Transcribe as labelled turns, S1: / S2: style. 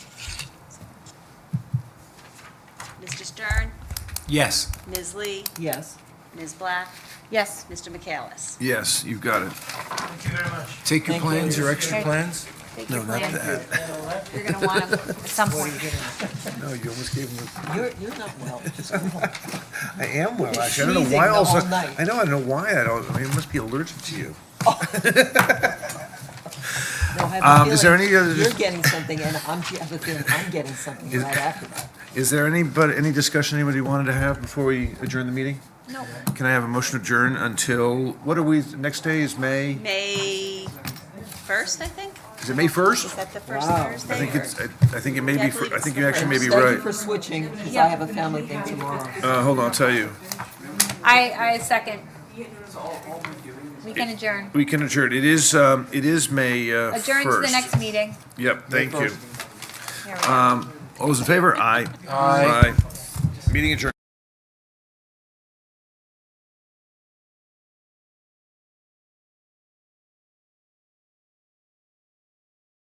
S1: Stern,
S2: Yes.
S1: Ms. Lee,
S3: Yes.
S1: Ms. Black,
S4: Yes.
S1: Mr. McAllis.
S5: Yes, you've got it.
S6: Thank you very much.
S2: Take your
S3: Thank you.
S2: plans, your extra plans?
S4: Take
S2: No,
S4: your
S2: not
S4: plan.
S2: that.
S4: You're going to want them at some point.
S2: No, you almost gave him
S3: You're, you're not well.
S2: a, I am well,
S3: You're
S2: actually. I don't know
S3: sneezing
S2: why
S3: the
S2: also.
S3: whole night.
S2: I know, I don't know why I don't, I mean, it must be allergic to you.
S3: No, I have a
S2: Um, is there
S3: feeling
S2: any other-
S3: You're getting something and I'm, I have a feeling I'm getting something
S2: Is-
S3: right after that.
S2: Is there any, but, any discussion anybody wanted to have before we adjourn the meeting?
S4: No.
S2: Can I have a motion to adjourn until, what are we, next day is May,
S1: May 1st, I think?
S2: is it May first?
S1: Is that the first
S3: Wow.
S1: Thursday?
S2: I think
S1: or-
S2: it's, I, I think it may
S1: Yeah, I
S2: be, fir-
S1: believe
S2: I
S1: it's
S2: think
S1: the
S2: you actually may be
S3: Thank you
S2: right.
S3: for switching because I
S4: Yeah.
S3: have a family thing tomorrow.
S2: Uh, hold on, I'll tell you.
S4: I, I second. We can adjourn.
S2: We can adjourn. It is, um, it is May, uh, first.
S4: Adjourn to the next meeting.
S2: Yep, thank you. Um,
S4: Here we go.
S2: All those in favor? Aye. Aye. Meeting adjourned.